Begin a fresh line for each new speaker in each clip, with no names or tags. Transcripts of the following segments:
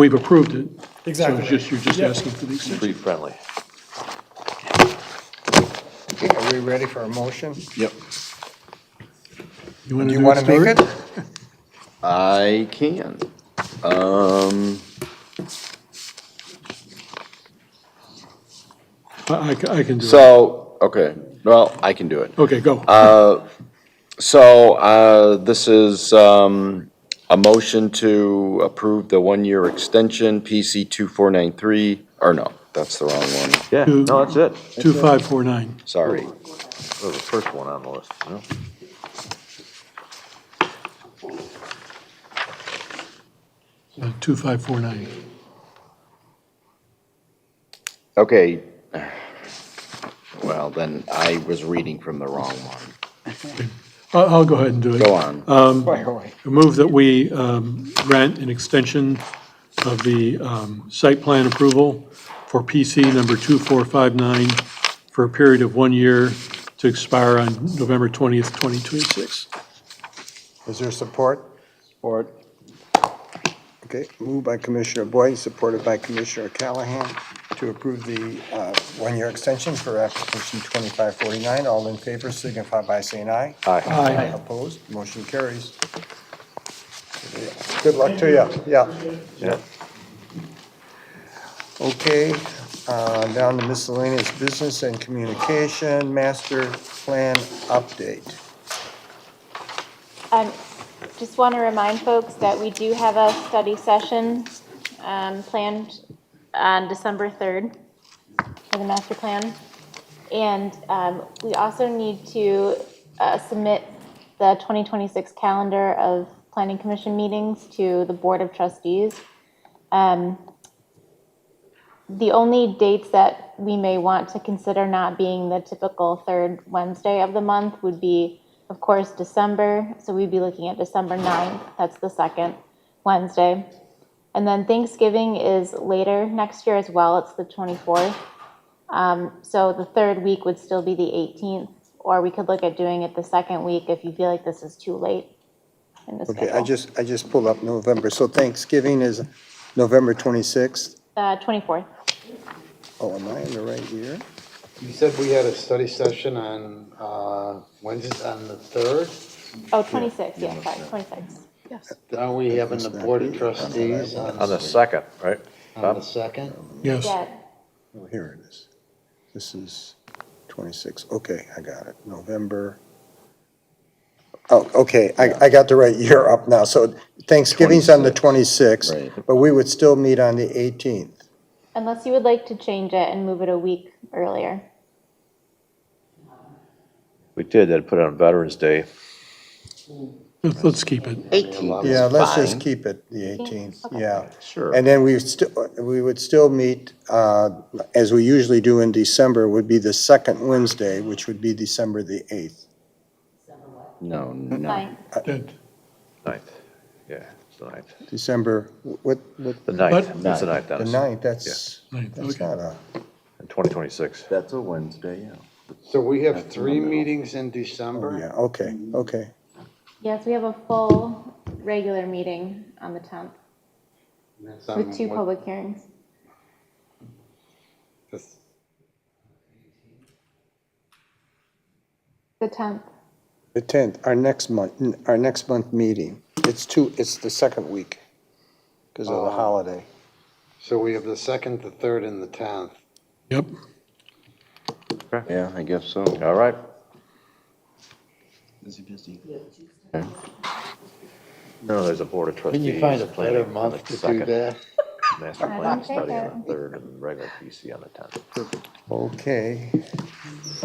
We've approved it. So
Exactly.
it's just, you're just
Yeah.
asking for the extension.
Tree friendly.
Are we ready for a motion?
Yep.
wanna
Do you
do
want to
Stuart?
make it?
I can. Um,
I, I ca- I can do it.
so, okay, well, I can do it.
Okay, go.
uh,
So, uh, this is, um, a motion to approve the one-year extension, PC two four nine three, or no, that's the wrong one,
Yeah, no, that's it.
2549.
sorry.
That was the first one on the list, you know?
Uh, 2549.
Okay. Well, then I was reading from the wrong one.
I'll, I'll go ahead and do it.
Go on.
Uh,
By the way,
I Move that we um, grant an extension of the um, site plan approval for PC number 2459 for a period of one year to expire on November 20th, 2026.
Is there support? Support. Okay, moved by Commissioner Boyd, supported by Commissioner Callahan to approve the uh, one-year extension for application 2549. All in favor signify by saying aye.
Aye.
Opposed, motion carries. Good luck to you, yeah.
Yeah.
Okay, uh, down to miscellaneous business and communication, master plan update.
Um, Just want to remind folks that we do have a study session um, planned on December 3rd for the master plan. And um, we also need to uh, submit the 2026 calendar of planning commission meetings to the Board of Trustees. Um, The only dates that we may want to consider not being the typical third Wednesday of the month would be, of course, December. So we'd be looking at December 9th, that's the second Wednesday. And then Thanksgiving is later next year as well, it's the 24th. Um, So the third week would still be the 18th, or we could look at doing it the second week if you feel like this is too late in the
Okay,
schedule.
I just, I just pulled up November, so Thanksgiving is November 26th.
Uh, 24th,
Oh, am I in the right year?
You said we had a study session on uh, Wednesday, on the 3rd.
oh, 26th, yeah, sorry, 26th.
Aren't we having the Board of Trustees on
On the
the
second, right?
on the 2nd?
Yes.
Yeah,
Oh, here it is. This is 26, okay, I got it, November. Oh, okay, I, I got the right year up now, so Thanksgiving's on the 26th,
Right.
but we would still meet on the 18th.
unless you would like to change it and move it a week earlier.
We did, then put it on Veterans Day.
Let's let's keep it.
Eighteen.
Yeah, let's just
fine.
keep it the 18th,
Okay.
yeah.
Sure.
And then we still, we would still meet, uh, as we usually do in December, would be the second Wednesday, which would be December the 8th.
No, no.
Fine,
Good.
Ninth, yeah, it's the ninth.
December, what, what,
The
But-
ninth, that's the ninth,
the
that's,
9th, that's,
Ninth,
that's
okay.
not a,
in twenty twenty-six.
That's a Wednesday, yeah.
So we have three meetings in December?
oh, yeah, okay,
Mm-hmm.
okay.
yes, we have a full regular meeting on the 10th
And that's on
with two
Um, what-
public hearings.
this-
The 10th,
The 10th, our next month, our next month meeting, it's two, it's the second week because of the
Oh.
holiday.
So we have the 2nd, the 3rd, and the 10th.
Yep.
Yeah, I guess so.
All right, no, there's a Board of Trustees.
Can you find a
planning
better
on
month
the
to do
second,
that?
Master
don't
plan
think
study
I-
on the third and regular PC on the tenth.
Okay,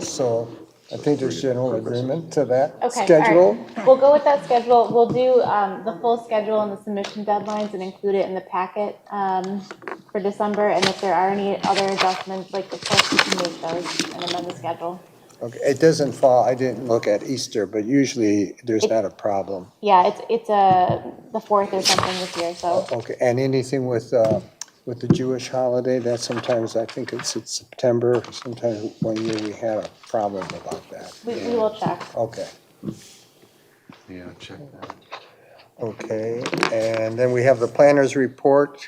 so I think there's general agreement to that
okay. all right.
schedule.
We'll go with that schedule, we'll do um, the full schedule and the submission deadlines and include it in the packet um, for December, and if there are any other adjustments, like, of course, we can make those and amend the schedule.
Okay, it doesn't fall, I didn't look at Easter, but usually there's not a problem.
Yeah, it's, it's uh, the 4th or something this year, so,
Okay, and anything with, uh, with the Jewish holiday, that sometimes, I think it's in September, sometimes one year we had a problem about that.
we we will check.
Okay,
Yeah, check that.
okay, and then we have the planner's report.